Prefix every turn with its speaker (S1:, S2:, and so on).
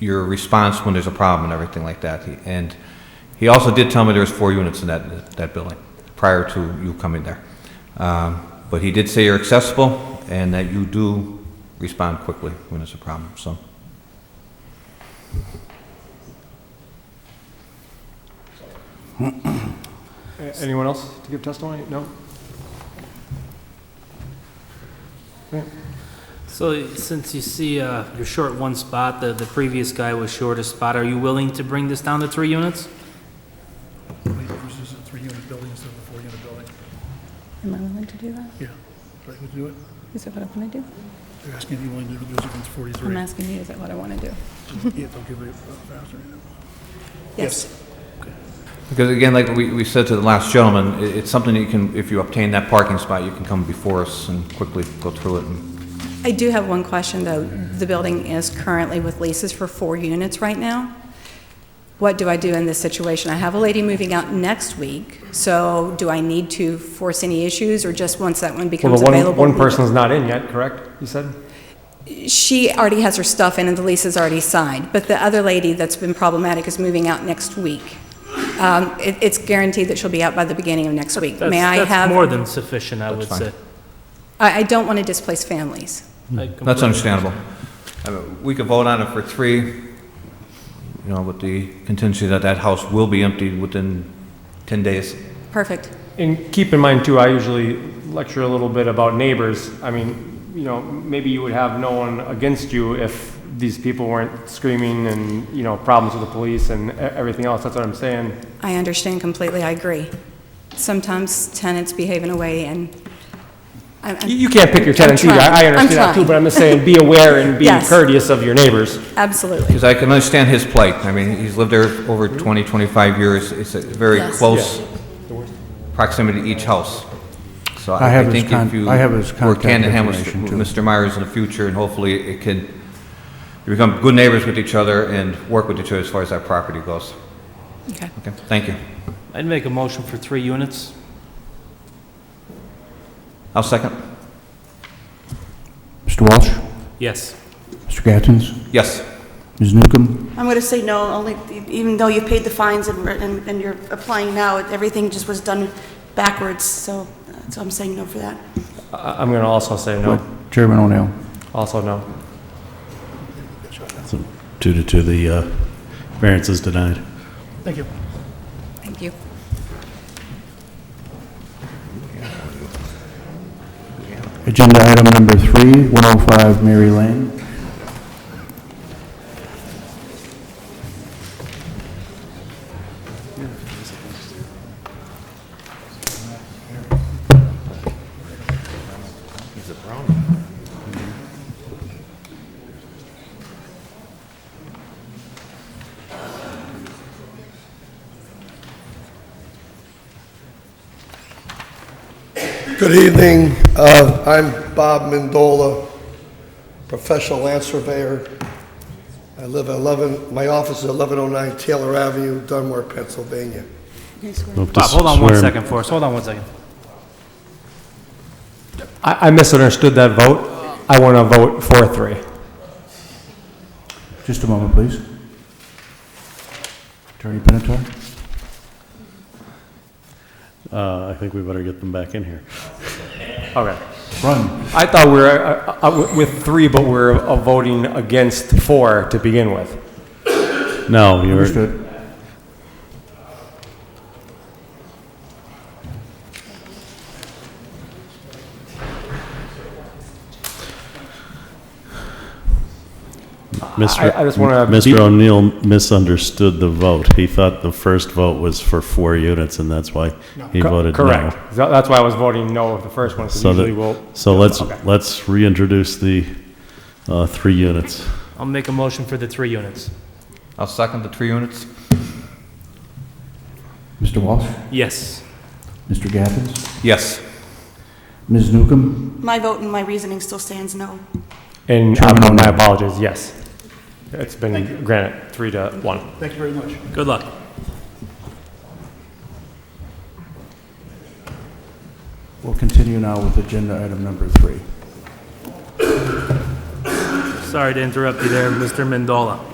S1: your response when there's a problem and everything like that. He- And he also did tell me there was four units in that, that building prior to you coming there. Um, But he did say you're accessible and that you do respond quickly when there's a problem, so.
S2: A- Anyone else to give testimony? No?
S3: So since you see uh, you're short one spot, the the previous guy was short a spot, are you willing to bring this down to three units?
S4: Only yours is a three-unit building instead of a four-unit building.
S5: Am I willing to do that?
S4: Yeah, so I can do it.
S5: Is that what I want to do?
S4: They're asking if you want to do it against
S5: I'm
S4: 43.
S5: asking you, is that what I want to do?
S4: Yeah, they'll give it faster.
S1: Because again, like we, we said to the last gentleman, i it's something that you can, if you obtain that parking spot, you can come before us and quickly go through it. and-
S5: I do have one question, though. The building is currently with leases for four units right now. What do I do in this situation? I have a lady moving out next week, so do I need to force any issues, or just once that one
S2: Well,
S5: becomes
S2: the one,
S5: available?
S2: one person's not in yet, correct, you said?
S5: She already has her stuff in, and the lease is already signed, but the other lady that's been problematic is moving out next week. Um, it- It's guaranteed that she'll be out by the beginning of next week. May
S3: That's-
S5: I have...
S3: That's more than sufficient, I would
S1: fine. Hmm.
S3: say.
S5: I I don't want to displace families.
S3: I
S1: That's
S3: completely-
S1: understandable. I mean, We could vote on it for three, you know, with the contingency that that house will be emptied within 10 days.
S5: Perfect.
S2: And keep in mind too, I usually lecture a little bit about neighbors. I mean, you know, maybe you would have no one against you if these people weren't screaming and, you know, problems with the police and e- everything else. That's what I'm saying.
S5: I understand completely, I agree. Sometimes tenants behave in a way, and I'm-
S2: You,
S5: I'm
S2: you can't pick your
S5: I'm
S2: tenants either. I I
S5: trying. I'm
S2: understand that too,
S5: trying.
S2: but I'm just saying, be aware and be
S5: Yes.
S2: courteous of your neighbors.
S5: absolutely,
S1: Because I can understand his plight. I mean, he's lived there over 20, 25 years. It's a very
S5: Yes.
S1: close proximity to each house. So
S6: I
S1: I
S6: have his
S1: think
S6: con-
S1: if you
S6: I have his
S1: work
S6: contact
S1: hand in hand with
S6: information,
S1: with
S6: too.
S1: Mr. Myers in the future, and hopefully it can, you become good neighbors with each other and work with each other as far as that property goes.
S5: okay.
S1: Okay, thank you.
S3: I'd make a motion for three units.
S1: I'll second.
S6: Mr. Walsh?
S3: Yes.
S6: Mr. Gattens?
S1: Yes.
S6: Ms. Newcomb?
S7: I'm going to say no, only, even though you've paid the fines and, and and you're applying now, everything just was done backwards, so, uh, so I'm saying no for that.
S2: I, I'm gonna also say no,
S6: Chairman O'Neill?
S2: also no.
S8: Two to two, the uh, variance is denied.
S4: Thank you.
S5: Thank you.
S6: Agenda item number three, 105 Mary Lane.
S9: Good evening. Uh, I'm Bob Mendola, professional land surveyor. I live at 11, my office is 1109 Taylor Avenue, Dunmore, Pennsylvania.
S8: Hope to
S3: Bob, hold on one
S8: swear-
S3: second for us, hold on one second.
S2: I, I misunderstood that vote. I wanna vote for three.
S6: Just a moment, please. Attorney Pinatar?
S8: Uh, I think we better get them back in here.
S2: Okay.
S6: Run.
S2: I thought we were uh, uh, uh, with three, but we're uh, voting against four to begin with.
S8: No, you're,
S6: Understood.
S8: Mr.
S2: I- I just wanna-
S8: Mr. O'Neill misunderstood the vote. He thought the first vote was for four units, and that's why he
S2: Co-
S8: voted no.
S2: Correct. So That's why I was voting no of the first one, because
S8: So
S2: usually
S8: that,
S2: we'll,
S8: so let's,
S2: Okay.
S8: let's reintroduce the uh, three units.
S3: I'll make a motion for the three units.
S1: I'll second the three units.
S6: Mr. Walsh?
S3: Yes.
S6: Mr. Gattens?
S1: Yes.
S6: Ms. Newcomb?
S7: My vote and my reasoning still stands no.
S2: and
S6: Chairman
S2: um, my
S6: O'Neill.
S2: apologies, yes. It's been granted, three to one.
S4: Thank you very much.
S3: Good luck.
S6: We'll continue now with agenda item number three.
S3: Sorry to interrupt you there, Mr. Mendola.